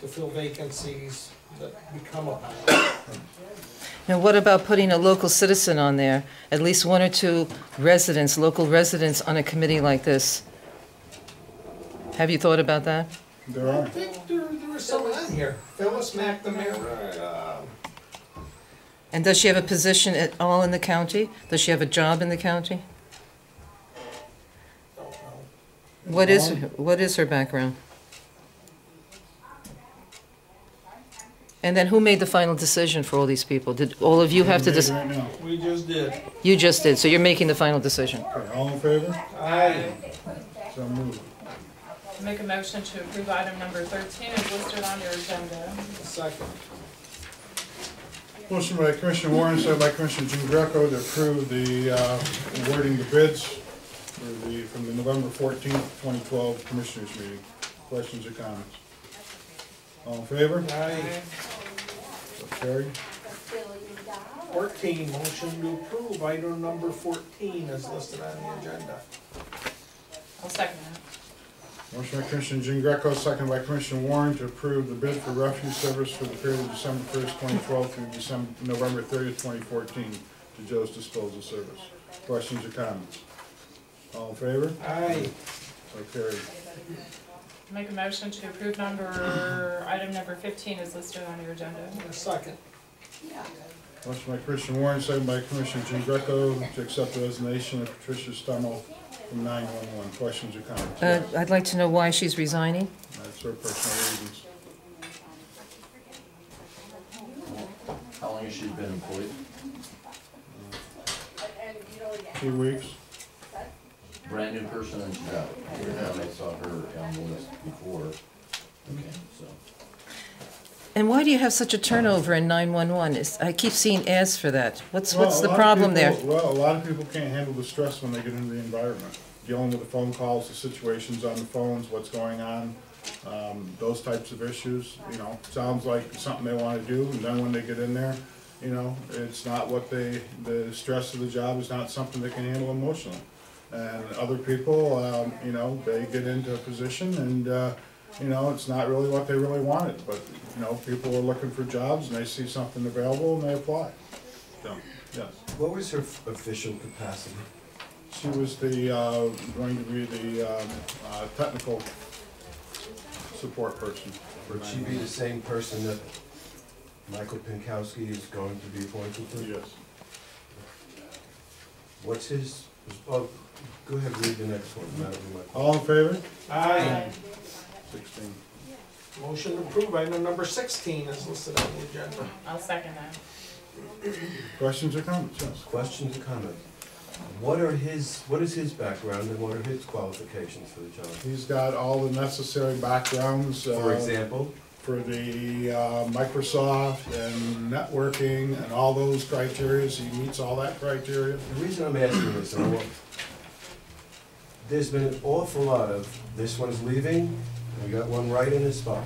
to fill vacancies that become apparent. And what about putting a local citizen on there? At least one or two residents, local residents on a committee like this? Have you thought about that? There I are. think there, there was some on here, Phyllis McNamara, uh, And does she have a position at all in the county? Does she have a job in the county? don't know. What is, what is her background? And then who made the final decision for all these people? Did all of you have to, Made dis- Right now. We just did. you just did, so you're making the final decision? Okay, all in favor? Aye. So moved. Make a motion to approve item number thirteen is listed on your agenda. Second. Motion by Commissioner Warren, second by Commissioner Jean Greco to approve the uh, awarding the bids for the, from the November fourteenth, twenty twelve Commissioners meeting. Questions or comments? All in favor? Aye. So carried. Fourteen, motion to approve item number fourteen is listed on the agenda. I'll second that. Motion by Commissioner Jean Greco, second by Commissioner Warren to approve the bid for refuse service for the period of December first, twenty twelve through December, November thirtieth, twenty fourteen to Joe's Disposal Service. Questions or comments? All in favor? Aye. So carried. Make a motion to approve number, item number fifteen is listed on your agenda. Second. Motion by Commissioner Warren, second by Commissioner Jean Greco to accept the resignation of Patricia Stummel from nine-one-one. Questions or comments? Uh, I'd like to know why she's resigning. That's her personal reasons. How long has she been employed? Two weeks. Brand new person and she's out. Every time I saw her on the list before. Okay, so. And why do you have such a turnover in 911? Is- I keep seeing ads for that. What's, Well, what's a the lot of problem there? people- Well, a lot of people can't handle the stress when they get into the environment. Dealing with the phone calls, the situations on the phones, what's going on, um, those types of issues, you know, sounds like something they wanna do, and then when they get in there, you know, it's not what they, the stress of the job is not something they can handle emotionally. And other people, um, you know, they get into a position and, uh, you know, it's not really what they really wanted, but, you know, people are looking for jobs and they see something available and they apply. So, yes. What was her f- official capacity? She was the, uh, going to be the um, uh, technical support person. Would she be the same person that Michael Pinkowski is going to be appointed to? Yes. What's his, oh, go ahead, read the next one, Madam Clerk. All in favor? Aye. Sixteen. Motion to approve item number sixteen is listed on the agenda. I'll second that. Questions or comments? Yes. Questions or comments? What are his, what is his background and what are his qualifications for the job? He's got all the necessary backgrounds. uh, For example, For the uh, Microsoft and networking and all those criterias. He meets all that criteria. the reason I'm asking this, I want- there's been an awful lot of, this one's leaving, we got one right in his spot.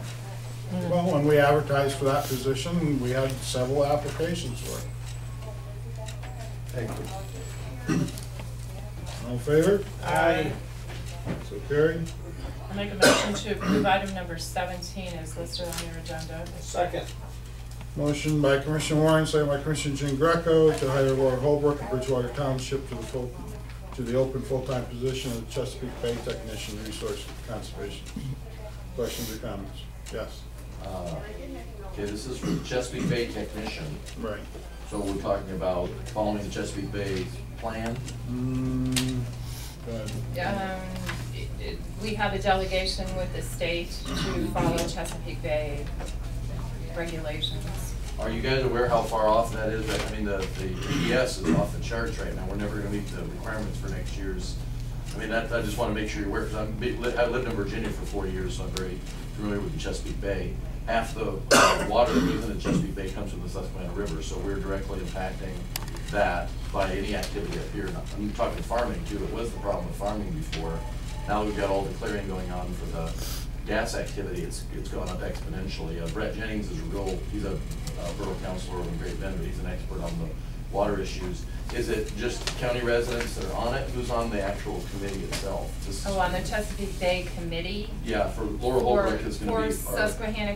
Well, when we advertised for that position, we had several applications for it. Thank you. All in favor? Aye. So carried. I'll make a motion to approve item number seventeen is listed on your agenda. Second. Motion by Commissioner Warren, second by Commissioner Jean Greco to hire Laura Holbrook of Bridgewater Township to the full, to the open full-time position of Chesapeake Bay Technician Resource Conservation. Questions or comments? Yes, uh, Okay, this is for Chesapeake Bay technician, right. so we're talking about following the Chesapeake Bay plan. Mm, good. Um, it- it- we have a delegation with the state to follow Chesapeake Bay regulations. Are you guys aware how far off that is? I mean, the, the ES is off the charts right now. We're never gonna meet the requirements for next year's. I mean, that, I just wanna make sure you're aware, because I'm, be- li- I lived in Virginia for forty years, so I'm very familiar with the Chesapeake Bay. Half the uh, water within the Chesapeake Bay comes from the Susquehanna River, so we're directly impacting that by any activity up here. And I'm talking farming too. It was the problem with farming before. Now we've got all the clearing going on for the gas activity, it's, it's gone up exponentially. Uh, Brett Jennings is a real, he's a uh, borough councilor in Great Bend, but he's an expert on the water issues. Is it just county residents that are on it? Who's on the actual committee itself? This- Oh, on the Chesapeake Bay Committee Yeah, for Oh, Laura for, Holbrook is gonna for be our, Susquehanna